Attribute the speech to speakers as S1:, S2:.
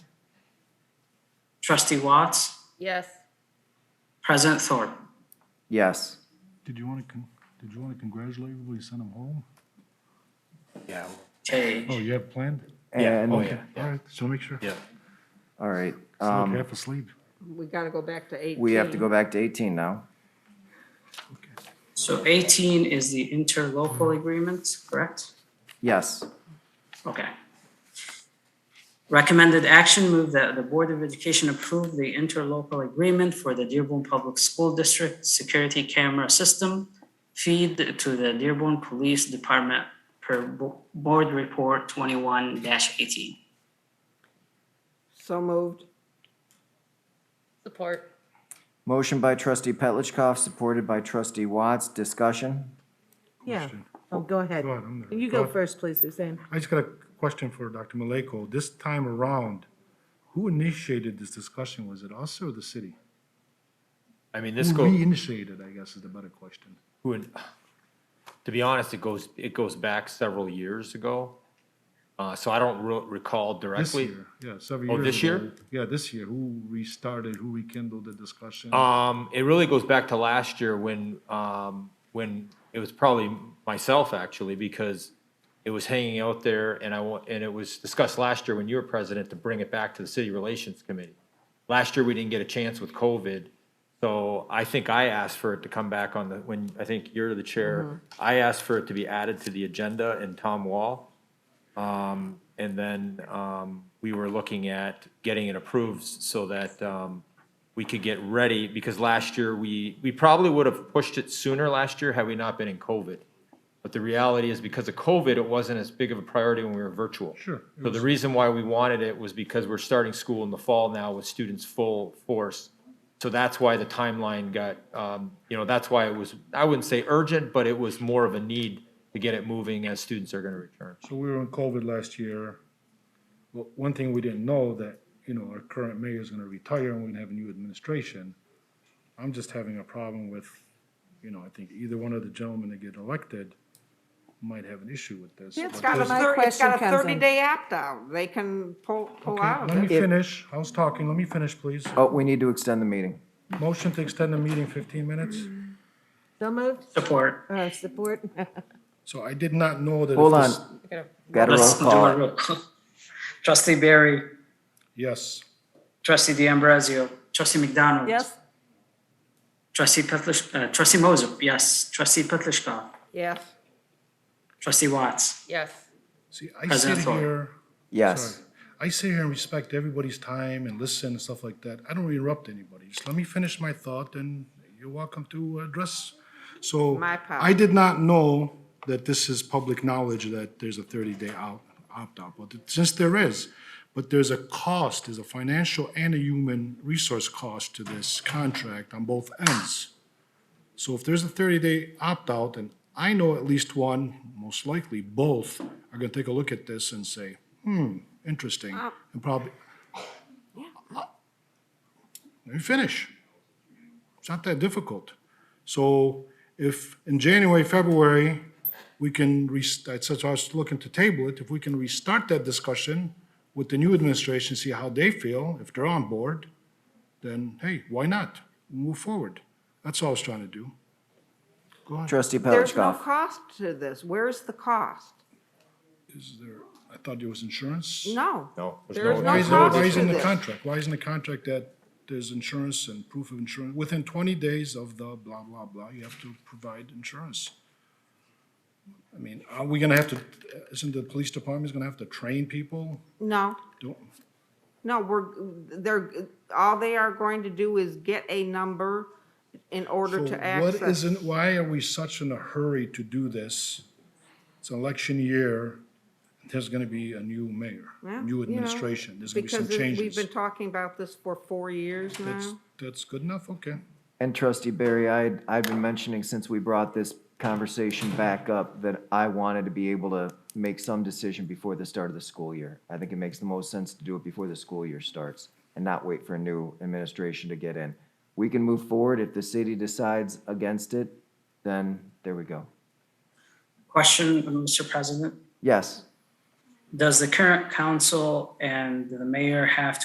S1: Trustee Watts,
S2: Yes.
S1: President Thorpe.
S3: Yes.
S4: Did you want to, did you want to congratulate everybody, send them home?
S5: Yeah,
S1: Okay,
S4: Oh, you have it planned?
S5: Yeah,
S3: And,
S5: oh, yeah.
S4: All right, so make sure.
S5: yeah.
S3: all right,
S4: Still
S3: um,
S4: half asleep.
S2: We gotta go back to eighteen.
S3: we have to go back to eighteen now.
S1: so 18 is the interlocal agreement, correct?
S3: Yes,
S1: Okay. Recommended action, move that the Board of Education approve the interlocal agreement for the Dearborn Public School District Security Camera System feed to the Dearborn Police Department per Bo- Board Report 21-18.
S2: So moved. Support.
S3: motion by trustee Petlicoff, supported by trustee Watts, discussion?
S6: Yeah,
S4: Question.
S6: oh, go ahead.
S4: Go ahead, I'm there.
S6: You
S4: Go
S6: go
S4: ahead.
S6: first, please, Suzanne.
S4: I just got a question for Dr. Maleko. This time around, who initiated this discussion? Was it us or the city?
S5: I mean, this
S4: Who
S5: goes,
S4: reinitiated, I guess, is the better question.
S5: who in- to be honest, it goes, it goes back several years ago. Uh, so I don't re- recall
S4: This
S5: directly.
S4: year, yeah, several
S5: Oh,
S4: years.
S5: this
S4: ago.
S5: year?
S4: Yeah, this year. Who restarted, who rekindled the discussion?
S5: Um, it really goes back to last year when, um, when it was probably myself actually, because it was hanging out there and I want, and it was discussed last year when you were president to bring it back to the city relations committee. Last year, we didn't get a chance with COVID. So I think I asked for it to come back on the, when, I think you're the chair. I asked for it to be added to the agenda and Tom Wall. Um, and then, um, we were looking at getting it approved so that, um, we could get ready, because last year, we, we probably would have pushed it sooner last year had we not been in COVID. But the reality is because of COVID, it wasn't as big of a priority when we were virtual.
S4: Sure.
S5: So the reason why we wanted it was because we're starting school in the fall now with students full force. So that's why the timeline got, um, you know, that's why it was, I wouldn't say urgent, but it was more of a need to get it moving as students are gonna return.
S4: So we were in COVID last year. Well, one thing we didn't know that, you know, our current mayor is gonna retire and we're gonna have a new administration. I'm just having a problem with, you know, I think either one of the gentlemen that get elected might have an issue with this.
S2: It's
S4: But
S2: got a
S4: this-
S6: My
S2: thir- it's got a
S6: question comes in.
S2: thirty-day opt-out. They can pull, pull
S4: Okay,
S2: out of
S4: Let me
S2: it.
S4: finish. I was talking. Let me finish, please.
S3: Oh, we need to extend the meeting.
S4: Motion to extend the meeting fifteen minutes.
S6: So moved,
S1: Support.
S6: uh, support?
S4: So I did not know that. if
S3: Hold on,
S4: this-
S3: got a roll
S1: Let's do a
S3: call.
S1: roll call. Trustee Barry,
S4: Yes.
S1: trustee D'Ambrosio, trustee McDonald.
S6: Yes?
S1: Trustee Petlicoff, uh, trustee Moser, yes. Trustee Petlicoff,
S2: Yes.
S1: trustee Watts.
S2: Yes.
S4: See, I sit
S1: President Thorpe.
S4: here.
S3: Yes,
S4: Sorry. I sit here and respect everybody's time and listen and stuff like that. I don't interrupt anybody. Just let me finish my thought and you're welcome to address. So
S2: My apologies.
S4: I did not know that this is public knowledge that there's a 30-day out, opt-out, but since there is, but there's a cost, there's a financial and a human resource cost to this contract on both ends. So if there's a 30-day opt-out, and I know at least one, most likely both, are going to take a look at this and say, hmm, interesting, and probably, let me finish. It's not that difficult. So if in January, February, we can, res- that's what I was looking to table it, if we can restart that discussion with the new administration, see how they feel, if they're on board, then hey, why not? Move forward. That's all I was trying to do. Go ahead.
S3: trustee
S2: There's no
S3: Petlicoff.
S2: cost to this. Where's the cost?
S4: Is there, I thought there was insurance?
S2: No.
S5: No, there's
S2: There is
S5: no-
S4: Why
S2: no
S4: is not
S2: cost
S4: why isn't
S2: to
S4: the
S2: this.
S4: contract, why isn't the contract that there's insurance and proof of insurance? Within twenty days of the blah, blah, blah, you have to provide insurance. I mean, are we gonna have to, isn't the police department's gonna have to train people?
S2: No,
S4: Don't,
S2: no, we're, they're, all they are going to do is get a number in order
S4: so
S2: to
S4: what
S2: access.
S4: isn't, why are we such in a hurry to do this? It's an election year, there's gonna be a new mayor,
S2: Yeah, you know,
S4: new administration, there's gonna be some
S2: Because it- we've
S4: changes.
S2: been uh, talking about this for four years
S4: That's,
S2: now.
S4: that's good enough, okay.
S3: And trustee Barry, I, I've been mentioning since we brought this conversation back up that I wanted to be able to make some decision before the start of the school year. I think it makes the most sense to do it before the school year starts and not wait for a new administration to get in. We can move forward. If the city decides against it, then there we go.
S1: Question, Mr. President.
S3: Yes.
S1: Does the current council and the mayor have to?